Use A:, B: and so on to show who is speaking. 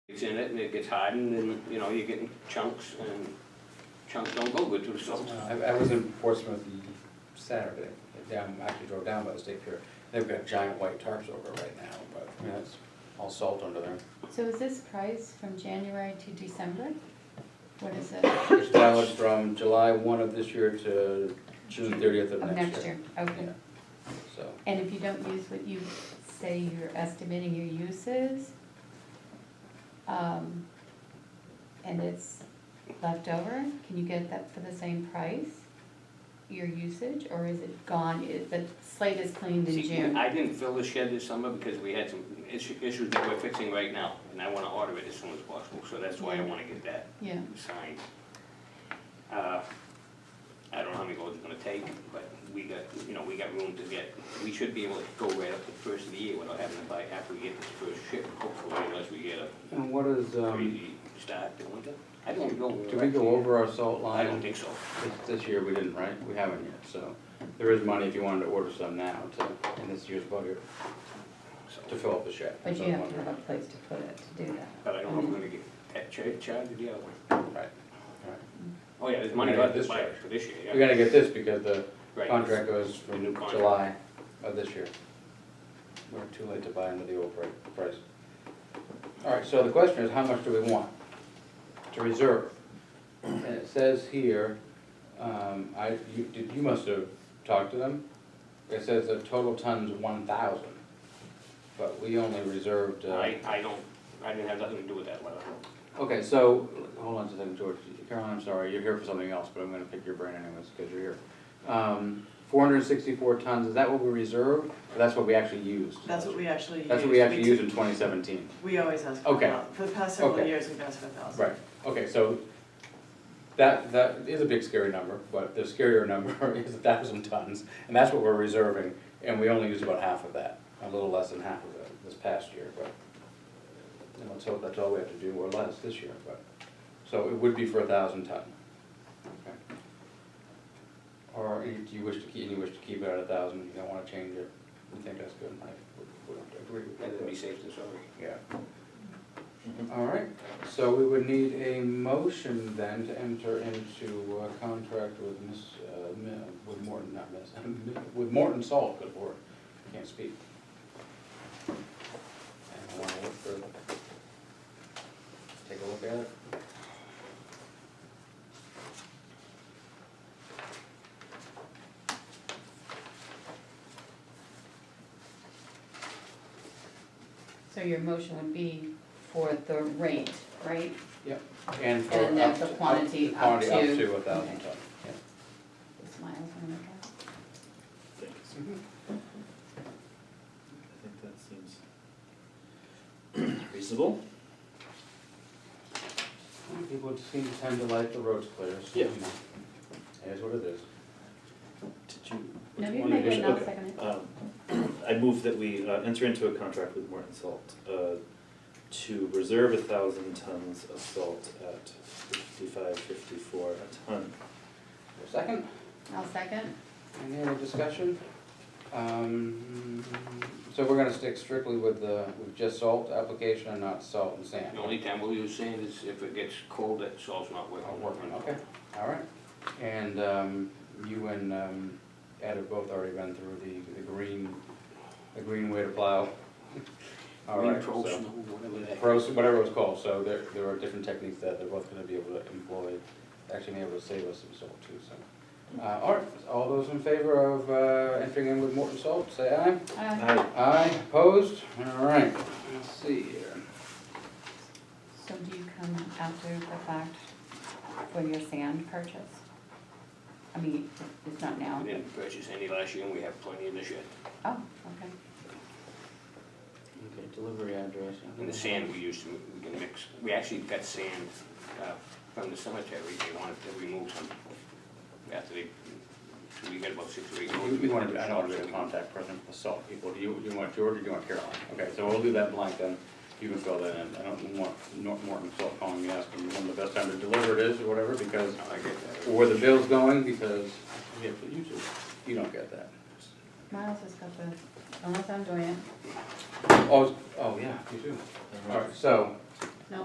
A: gets in it and it gets hardened and, you know, you're getting chunks and chunks don't go good to the salt.
B: I, I was in Portsmouth Saturday, down, actually drove down by the state pier. They've got giant white tarps over it right now, but, I mean, it's all salt under there.
C: So is this price from January to December? What is it?
B: It's valid from July one of this year to June thirtieth of
C: Of
B: next
C: next
B: year.
C: year, okay.
B: Yeah. So,
C: And if you don't use what you say you're estimating your use is, um, and it's left over, can you get that for the same price? Your usage, or is it gone, is, the slate is cleaned in
A: See,
C: June?
A: I didn't fill the shed this summer because we had some issu- issues that we're fixing right now, and I wanna order it as soon as possible, so that's why I
C: Yeah.
A: wanna get that
C: Yeah,
A: signed. Uh, I don't know how many loads it's gonna take, but we got, you know, we got room to get, we should be able to go right up to the first of the year without having to buy after we get this first ship, hopefully, unless we get a
B: and what is, um,
A: crazy start in winter. I don't know.
B: do we go over our salt
A: I
B: line?
A: don't think so.
B: This- This year we didn't, right? We haven't yet, so there is money if you wanted to order some now to, in this year's budget, to
A: So,
B: fill up the shed.
C: but you have to have a place to put it to do that.
A: But I don't know if we're gonna get that cha- charge or the other one.
B: Right, right.
A: Oh, yeah, there's money
B: We gotta
A: left
B: get
A: to
B: this
A: buy
B: charge.
A: it for this year, yeah.
B: We gotta get this because the
A: Right.
B: contract goes
A: The new
B: from
A: contract.
B: July of this year. We're too late to buy under the old pri- price. All right, so the question is, how much do we want to reserve? And it says here, um, I, you, did, you must have talked to them. It says the total ton's one thousand, but we only reserved, uh.
A: I, I don't, I didn't have nothing to do with that letter.
B: Okay, so, hold on just a second, George, Caroline, I'm sorry, you're here for something else, but I'm gonna pick your brain anyways, cause you're here. Um, four hundred and sixty-four tons, is that what we reserved, or that's what we actually used?
D: That's what we actually use.
B: That's what we actually used in twenty seventeen,
D: We always ask for a
B: Okay.
D: thousand, for the past several
B: Okay.
D: years, we've asked for a thousand.
B: right, okay, so that, that is a big scary number, but the scarier number is a thousand tons, and that's what we're reserving, and we only used about half of that, a little less than half of it this past year, but. And let's hope that's all we have to do, or less this year, but, so it would be for a thousand ton. Okay. Or you- do you wish to keep, you wish to keep it at a thousand, you don't wanna change it, you think that's good, I would- would agree with that.
A: That'd be safe than sorry.
B: Yeah. All right, so we would need a motion then to enter into a contract with Miss, uh, Mi- with Morton, not Miss, with Morton Salt, good lord, can't speak. And I wanna look for, take a look at it.
C: So your motion would be for the rate, right?
B: Yep. And for
C: And
B: up
C: that's
B: to.
C: the quantity up
B: quantity
C: to-
B: a thousand
C: okay.
B: ton, yeah.
C: Smiles when I look
E: I think that seems reasonable.
B: People seem to tend to like the roads clear, so.
E: Yeah.
B: you know, It is what it is.
E: Did you?
C: No,
E: which
C: you
E: one
C: can make
E: did
C: it,
E: you-
C: and I'll
E: okay.
C: second it.
E: Um, I move that we uh, enter into a contract with Morton Salt uh, to reserve a thousand tons of salt at fifty-five, fifty-four a ton.
B: Second?
C: at. I'll second.
B: Any other discussion? Um, So we're gonna stick strictly with the, with just salt application and not salt and sand?
A: The only time we'll use sand is if it gets cold, that salt's not working.
B: Not working, okay, all right. And um, you and um, Ed have both already been through the, the green, the green way to plow. All
A: Green
B: right,
A: pro
B: so-
A: snow, whatever that.
B: Pros, whatever it was called, so there, there are different techniques that they're both gonna be able to employ, actually may able to save us some salt too, so. Uh, all right, all those in favor of, uh, entering in with Morton Salt, say aye.
C: Uh,
E: I
B: Aye, opposed, all right, let's see here.
C: So do you come after the fact for your sand purchase? I mean, it's not now.
A: We didn't purchase any last year and we have plenty in the shed.
C: Oh, okay.
B: Okay, delivery address.
A: And the sand we used, to- we can mix, we actually got sand uh, from the cemetery, they wanted to remove some. After they, so we got about six or eight loads.
B: You, you wanna, I don't wanna be the contact person for the salt people, do you, you want George or do you want Caroline? Okay, so we'll do that blank then, you can fill that in, I don't want Nor- Morton Salt calling me asking when the best time to deliver it is or whatever, because
A: I get that.
B: where the bill's going because we have to use it. You don't get that.
C: Miles has got the, unless I'm doing it,
B: Oh, oh, yeah, you do. All right, so